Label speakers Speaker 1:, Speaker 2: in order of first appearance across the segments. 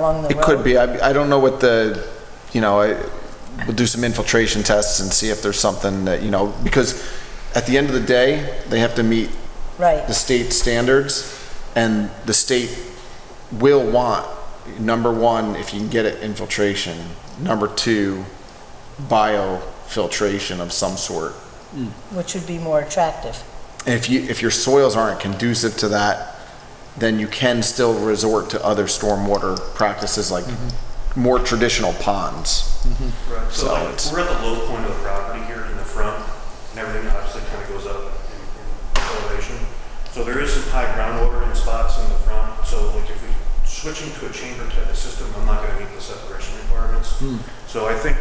Speaker 1: along the road?
Speaker 2: It could be. I, I don't know what the, you know, I, we'll do some infiltration tests and see if there's something that, you know, because at the end of the day, they have to meet
Speaker 1: Right.
Speaker 2: the state standards and the state will want, number one, if you can get it infiltration, number two, biofiltration of some sort.
Speaker 1: Which would be more attractive.
Speaker 2: And if you, if your soils aren't conducive to that, then you can still resort to other stormwater practices like
Speaker 3: Mm-hmm.
Speaker 2: more traditional ponds.
Speaker 4: Right, so
Speaker 2: So
Speaker 4: like,
Speaker 2: it's-
Speaker 4: we're at the low point of the property here in the front, and everything obviously kind of goes up in- in elevation. So there is some high groundwater in spots in the front, so like if we, switching to a chamber type of system, I'm not gonna meet the separation requirements. So I think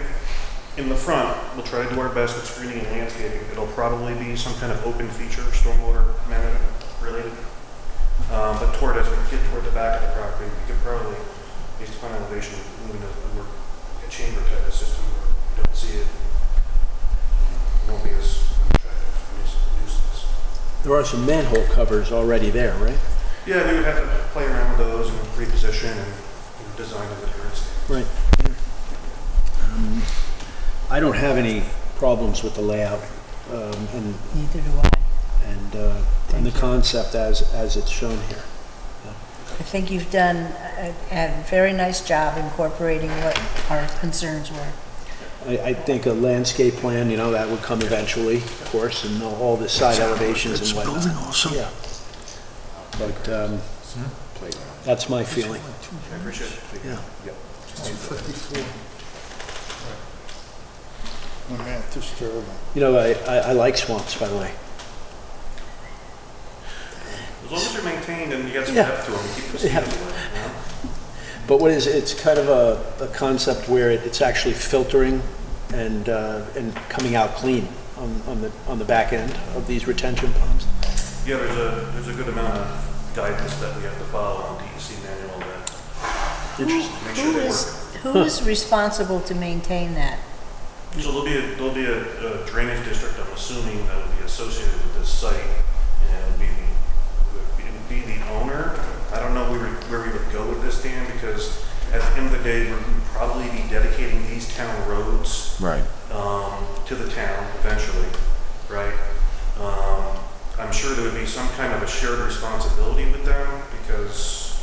Speaker 4: in the front, we'll try to do our best with screening and landscaping. It'll probably be some kind of open feature, stormwater management related. Um, but toward, as we get toward the back of the property, we could probably, based upon elevation, move into more a chamber type of system where you don't see it. It won't be as attractive a nuis- nuisance.
Speaker 5: There are some manhole covers already there, right?
Speaker 4: Yeah, we would have to play around with those and reposition and you know, design of the current standards.
Speaker 5: Right. Um, I don't have any problems with the layout um, and,
Speaker 1: Neither do I.
Speaker 5: and, uh, and the concept as, as it's shown here.
Speaker 1: I think you've done a, a very nice job incorporating what our concerns were.
Speaker 5: I, I think a landscape plan, you know, that would come eventually, of course, and all the side elevations and whatnot. building also. Yeah. But, um, that's my feeling.
Speaker 4: I appreciate it.
Speaker 5: Yeah.
Speaker 3: Oh, man, this is terrible.
Speaker 5: You know, I, I, I like swamps, by the way.
Speaker 4: As long as they're maintained and you got some
Speaker 5: Yeah.
Speaker 4: depth to them, keep them
Speaker 5: Yeah.
Speaker 4: stable, you know?
Speaker 5: But what is, it's kind of a, a concept where it- it's actually filtering and, uh, and coming out clean on, on the, on the back end of these retention ponds.
Speaker 4: Yeah, there's a, there's a good amount of guidance that we have to follow on DEC manual that
Speaker 5: Interesting.
Speaker 4: make sure
Speaker 1: Who
Speaker 4: they work.
Speaker 1: is, who is responsible to maintain that?
Speaker 4: So there'll be, a there'll be a a drainage district, I'm assuming, that will be associated with this site, and it'll be, the- it would be the owner. I don't know where we- where we would go with this, Dan, because at the end of the day, we'd probably be dedicating these town roads
Speaker 2: Right.
Speaker 4: um, to the town eventually, right? Um, I'm sure there would be some kind of a shared responsibility with them because,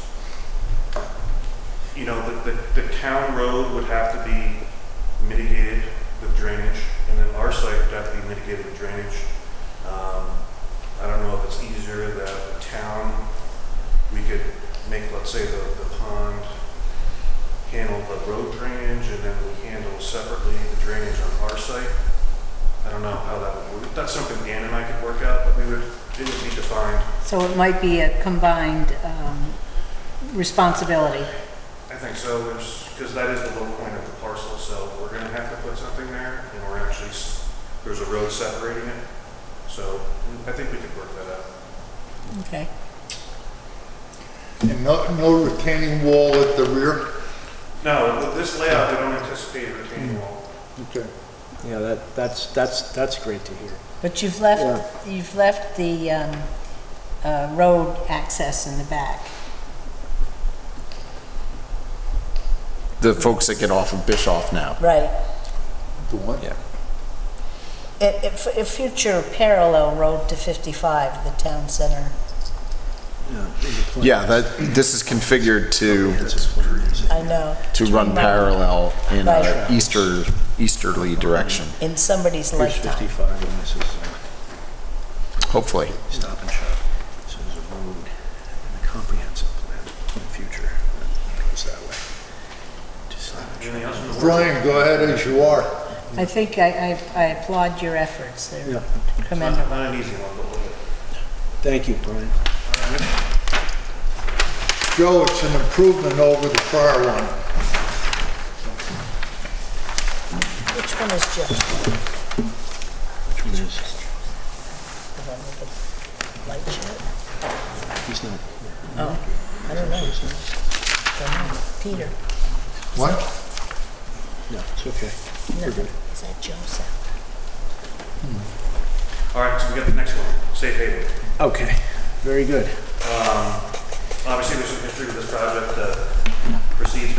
Speaker 4: you know, the, the, the town road would have to be mitigated with drainage and then our site would have to be mitigated with drainage. Um, I don't know if it's easier that the town, we could make, let's say, the, the pond handle the road drainage and then we handle separately the drainage on our site. I don't know how that would work. That's something Dan and I could work out, but we would, it would be defined.
Speaker 1: So it might be a combined, um, responsibility.
Speaker 4: I think so, there's, because that is the low point of the parcel, so we're gonna have to put something there and we're actually, s- there's a road separating it. So I think we could work that out.
Speaker 1: Okay.
Speaker 3: And no, no retaining wall at the rear?
Speaker 4: No, with this layout, we don't anticipate a retaining wall.
Speaker 3: Okay.
Speaker 5: Yeah, that, that's, that's, that's great to hear.
Speaker 1: But you've left, you've left the, um, uh, road access in the back.
Speaker 2: The folks that get off of Bischoff now.
Speaker 1: Right.
Speaker 3: The what?
Speaker 2: Yeah.
Speaker 1: A, a- a future parallel road to 55, the town center.
Speaker 5: Yeah, in the plan.
Speaker 2: Yeah, that, this is configured to,
Speaker 5: That's a plan, is it?
Speaker 1: I know.
Speaker 2: to run parallel in a
Speaker 1: Right.
Speaker 2: easter, easterly direction,
Speaker 1: In somebody's
Speaker 5: Here's
Speaker 1: lifetime.
Speaker 5: 55, and this is
Speaker 2: hopefully.
Speaker 5: a stop and shop. So there's a road and a comprehensive plan in the future that goes that way. To stop and shop.
Speaker 4: Anything else in the works?
Speaker 3: Brian, go ahead as you are.
Speaker 1: I think I, I- I applaud your efforts. They're
Speaker 5: Yeah.
Speaker 4: Not
Speaker 1: commendable.
Speaker 4: not an easy one, but we'll get it.
Speaker 5: Thank you, Brian.
Speaker 3: Joe, it's an improvement over the prior one.
Speaker 1: Which one is Jeff?
Speaker 5: Which one is,
Speaker 1: The one with the light shirt?
Speaker 5: he's not.
Speaker 1: I don't know. Don't know. Peter?
Speaker 3: What?
Speaker 5: No, it's okay.
Speaker 1: No. Is that Joseph?
Speaker 4: All right, so we got the next one, safe haven.
Speaker 5: Okay, very good.
Speaker 4: Obviously, there's some history with this project. uh, proceeds